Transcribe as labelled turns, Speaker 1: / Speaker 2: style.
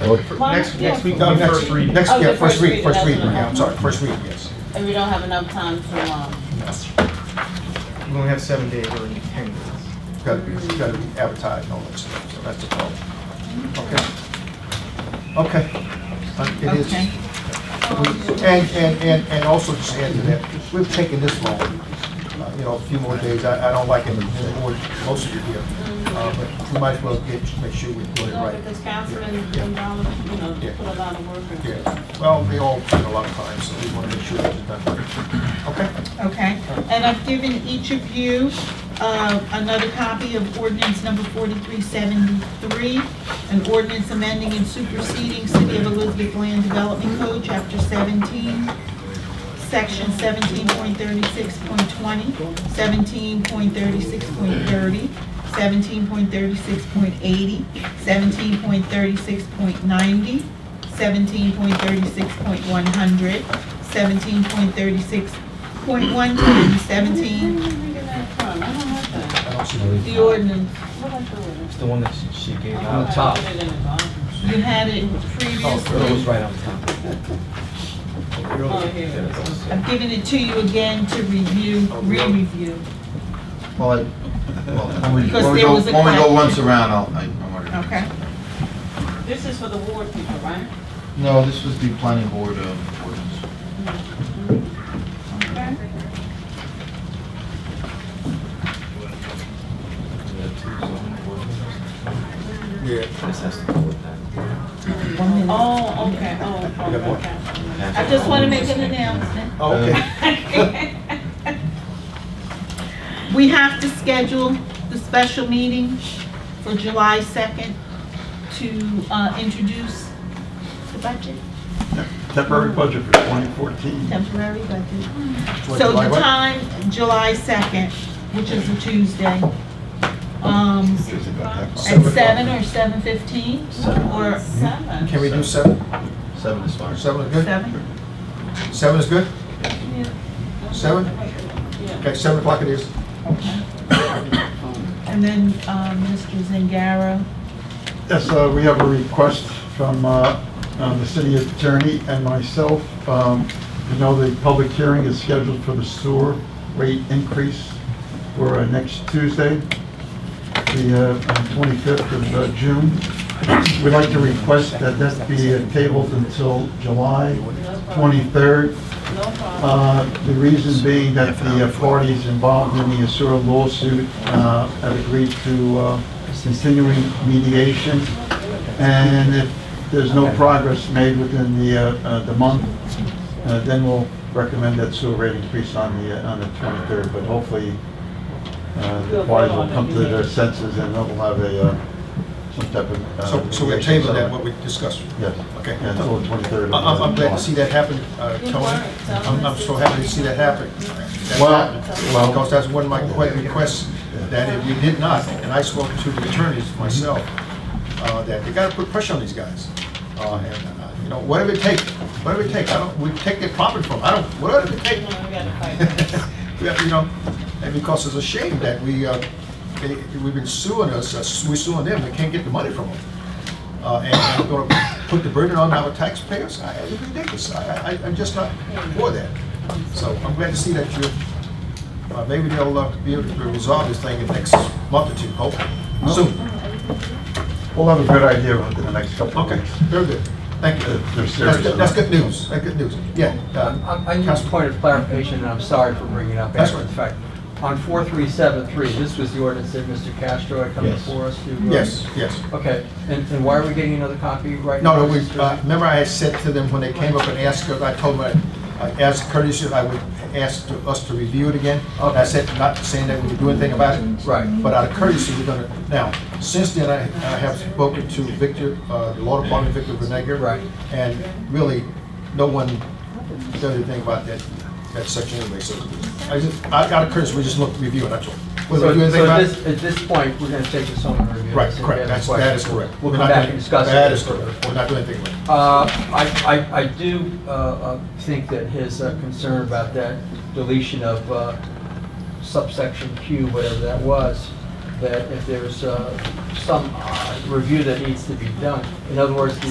Speaker 1: Well,
Speaker 2: Next,
Speaker 1: yeah.
Speaker 2: next week, uh, next,
Speaker 1: First reading.
Speaker 2: next,
Speaker 1: Oh,
Speaker 2: yeah,
Speaker 1: the
Speaker 2: first read, first
Speaker 1: that's
Speaker 2: read,
Speaker 1: what I
Speaker 2: yeah, I'm
Speaker 1: meant.
Speaker 2: sorry, first read, yes.
Speaker 1: And we don't have enough time to, um,
Speaker 3: We only have seven days or ten days.
Speaker 2: It's Gotta be, it's gotta be advertised and all that stuff, so that's the problem. Okay. Okay. Uh, It is.
Speaker 4: Okay.
Speaker 2: We- And, and, and, and also just add to that, we've taken this long, uh, you know, a few more days, I, I don't like it anymore, most of you here. Uh, But we might as well get, make sure we do it
Speaker 1: no,
Speaker 2: right.
Speaker 1: because Councilman
Speaker 2: Yeah.
Speaker 1: Gonzalez, you know,
Speaker 2: Yeah.
Speaker 1: put a lot of work into it.
Speaker 2: Yeah, well, they all take a lot of time, so we wanna make sure that it's done right. Okay?
Speaker 4: Okay, and I've given each of you uh, another copy of ordinance number 4373, an ordinance amending and superseding City of Elizabeth Land Development Code, Chapter 17, Section 17.36.20, 17.36.30, 17.36.80, 17.36.90, 17.36.100, 17.36.110, 17,
Speaker 1: Where are you reading that from? I don't have that.
Speaker 2: I don't see the-
Speaker 4: the ordinance.
Speaker 1: What I do with it?
Speaker 5: It's the one that she- she gave
Speaker 1: Oh,
Speaker 5: on
Speaker 1: I
Speaker 5: top.
Speaker 1: put it in the bottom.
Speaker 4: You had it
Speaker 5: It was
Speaker 4: previously.
Speaker 5: right on top.
Speaker 1: Oh, here it is.
Speaker 4: I've given it to you again to review, re-review.
Speaker 6: Well, I- well, when we,
Speaker 4: Because
Speaker 6: when we
Speaker 4: there
Speaker 6: go,
Speaker 4: was a
Speaker 6: when we go
Speaker 4: question.
Speaker 6: once around, I'll, I, I want to.
Speaker 4: Okay,
Speaker 1: This is for the ward people, right?
Speaker 6: No, this was the planning board, um, ordinance.
Speaker 2: Yeah.
Speaker 5: This has to do with that.
Speaker 4: one minute.
Speaker 1: Oh, okay, oh, oh,
Speaker 2: Yeah, what?
Speaker 1: okay.
Speaker 4: I just want to make an announcement.
Speaker 2: Oh, Okay.
Speaker 4: We have to schedule the special meeting for July 2nd to uh, introduce the budget,
Speaker 7: Temporary budget for 2014.
Speaker 4: temporary budget.
Speaker 2: What,
Speaker 4: So
Speaker 2: July
Speaker 4: the
Speaker 2: what?
Speaker 4: time, July 2nd, which is a Tuesday, um, at
Speaker 2: Seven o'clock. Mm-hmm.
Speaker 4: 7 or 7:15? Or
Speaker 1: Seven.
Speaker 2: Can we do seven?
Speaker 6: Seven is fine.
Speaker 2: Seven is good?
Speaker 4: 7?
Speaker 2: Seven is good? Seven?
Speaker 1: Yeah.
Speaker 2: Okay, seven o'clock it is.
Speaker 4: And then um, Mr. Zangaro,
Speaker 7: Yes, uh, we have a request from uh, um, the city attorney and myself. Um, You know, the public hearing is scheduled for the sewer rate increase for uh, next Tuesday, the uh, 25th of uh, June. We'd like to request that that be uh, tabled until July 23rd.
Speaker 1: No problem.
Speaker 7: Uh, The reason being that the uh, parties involved in the Asura lawsuit uh, have agreed to uh, continuing mediation, and if there's no progress made within the, uh, uh, the month, uh, then we'll recommend that sewer rate increase on the, uh, on the 23rd, but hopefully uh, the parties will come to their senses and they'll have a, uh, some type of. uh,
Speaker 2: So, so we're
Speaker 7: mediation
Speaker 2: tabling that, what
Speaker 7: settlement.
Speaker 2: we discussed.
Speaker 7: Yes.
Speaker 2: Okay.
Speaker 7: Yeah, until the 23rd.
Speaker 2: I- I'm, I'm glad to see that happen, uh,
Speaker 1: Good
Speaker 2: Tony.
Speaker 1: work, Tony.
Speaker 2: I'm, I'm so happy to see that happen. That's
Speaker 7: Well,
Speaker 2: happened.
Speaker 7: well-
Speaker 2: Because that's one of my que- requests, that if we did not, and I spoke to the attorneys myself, uh, that they gotta put pressure on these guys. Uh, and, uh, you know, whatever it takes, whatever it takes, I don't, we take their property from, 'em. I don't, whatever it takes.
Speaker 1: No, we gotta fight this.
Speaker 2: We have, you know, and because it's a shame that we, uh, they, we've been suing us, uh, we suing them, we can't get the money from them. Uh, and I'm gonna put the burden on our taxpayers, I, it's ridiculous, I, I, I'm just not for that. So I'm glad to see that you, uh, maybe they'll, uh, be able to resolve this thing in the next month or two, hopefully, soon.
Speaker 7: We'll have a good idea within the next couple of
Speaker 2: Okay,
Speaker 7: weeks.
Speaker 2: very good, thank you.
Speaker 7: They're
Speaker 2: That's
Speaker 7: serious
Speaker 2: good- That's good news, that's good news, yeah. uh,
Speaker 5: Um, I I need a
Speaker 2: Councilman-
Speaker 5: point of clarification, and I'm sorry for bringing it up
Speaker 2: That's
Speaker 5: after the
Speaker 2: right.
Speaker 5: fact. On 4373, this was the ordinance that Mr. Castro had come
Speaker 6: Yes.
Speaker 5: before us to... uh,
Speaker 2: Yes, yes.
Speaker 5: Okay, and and why are we getting another copy right now?
Speaker 2: No, no, we,
Speaker 5: Mr.
Speaker 2: uh, remember I had said to them when they came up and asked, I told them, I asked Curtis if I would ask to- us to review it again. And I said, not saying that we would do anything about it.
Speaker 5: Right.
Speaker 2: But out of courtesy, we're gonna, now, since then, I I have spoken to Victor, uh, the law department, Victor Benega.
Speaker 5: Right.
Speaker 2: And really, no one does anything about that, that section anyway, so I just, I- out of courtesy, we just look, review it, that's all. Whether
Speaker 5: So
Speaker 2: we do
Speaker 5: so
Speaker 2: anything
Speaker 5: at
Speaker 2: about it.
Speaker 5: this, at this point, we're going to take this home and review.
Speaker 2: Right,
Speaker 5: this and
Speaker 2: correct,
Speaker 5: get a
Speaker 2: that's, that is
Speaker 5: question.
Speaker 2: correct.
Speaker 5: We'll
Speaker 2: We're
Speaker 5: come
Speaker 2: not
Speaker 5: back
Speaker 2: doing-
Speaker 5: and discuss it.
Speaker 2: That is correct, we're not doing anything with it.
Speaker 5: Uh, I, I, I do uh, uh, think that his uh, concern about that deletion of uh, subsection Q, whatever that was, that if there's uh, some uh, review that needs to be done, in other words, the